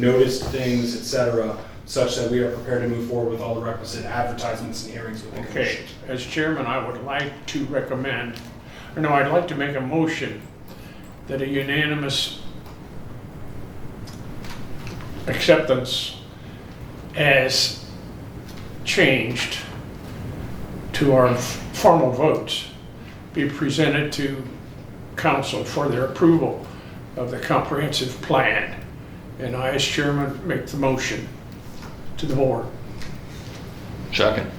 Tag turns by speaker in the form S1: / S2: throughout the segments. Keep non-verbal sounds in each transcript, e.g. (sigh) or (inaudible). S1: noticed things, et cetera, such that we are prepared to move forward with all the requisite advertisements and hearings with the
S2: Okay,
S1: commission.
S2: as chairman, I would like to recommend, or no, I'd like to make a motion that a unanimous acceptance as changed to our formal votes be presented to council for their approval of the comprehensive plan. And I, as chairman, make the motion to the board.
S3: Second.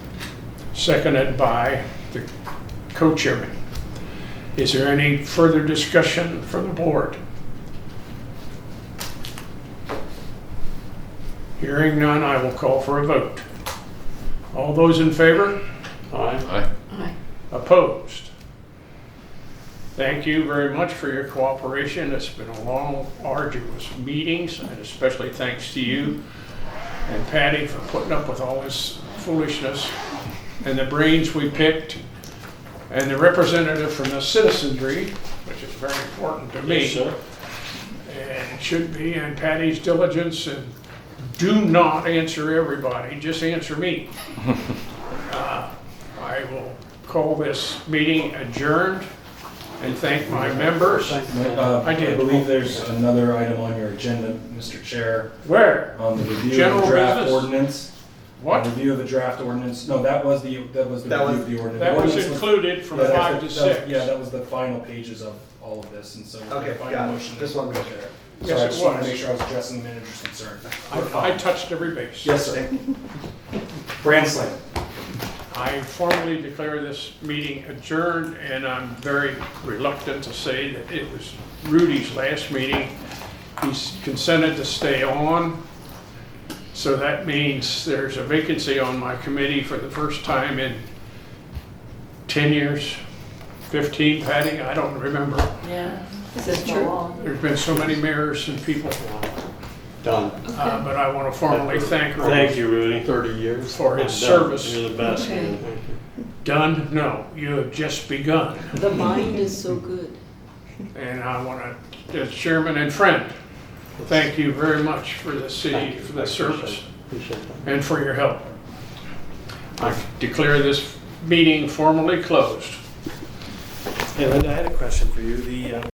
S2: seconded by the co-chairman. Is there any further discussion from the board? Hearing none, I will call for a vote. All those in favor? Aye.
S3: Aye.
S4: Aye.
S2: Opposed? Thank you very much for your cooperation. It's been a long, arduous meetings, and especially thanks to you and Patty for putting up with all this foolishness and the brains we picked and the representative from the citizenry, which is very important to me. And it should be, and Patty's diligence, and do not answer everybody, just
S1: (laughs)
S2: answer me. Uh, I will call this meeting adjourned and thank my members.
S1: Uh,
S2: I did.
S1: I believe there's another item on your agenda, Mr. Chair,
S2: Where?
S1: on the review of
S2: General
S1: the draft
S2: business.
S1: ordinance.
S2: What?
S1: Review of the draft ordinance, no, that was the, that was the
S5: That
S1: review of the ordinance.
S2: That was
S1: Ordinance
S2: included from
S1: that was
S2: five
S1: the-
S2: to
S1: that was-
S2: six.
S1: Yeah, that was the final pages of all of this, and so. we're gonna
S5: Okay,
S1: find a
S5: got
S1: motion.
S5: it. Just want to make sure.
S2: Yes,
S1: Sorry, I
S2: it
S1: just wanted to
S2: was.
S1: make sure I was addressing the manager's concern.
S2: I I touched every base.
S1: Yes, sir. Brand slam.
S2: I formally declare this meeting adjourned, and I'm very reluctant to say that it was Rudy's last meeting. He's consented to stay on, so that means there's a vacancy on my committee for the first time in 10 years, 15, Patty, I don't remember.
S4: Yeah. This is true.
S2: There's been so many mayors and people,
S6: Done.
S2: uh, but I want to formally thank
S6: Thank
S2: Rudy
S6: you, Rudy. Thirty years.
S2: for his service.
S6: You're the best.
S4: Okay.
S6: man. Thank you.
S2: Done? No, you have just begun.
S4: The mind is so good.
S2: And I want to, as chairman and friend, thank you very much for the
S6: Thank
S2: city,
S6: you.
S2: for the
S6: I
S2: service,
S6: Appreciate it.
S2: and for your help. I declare this meeting formally closed.
S5: Hey Linda, I had a question for you. The, uh,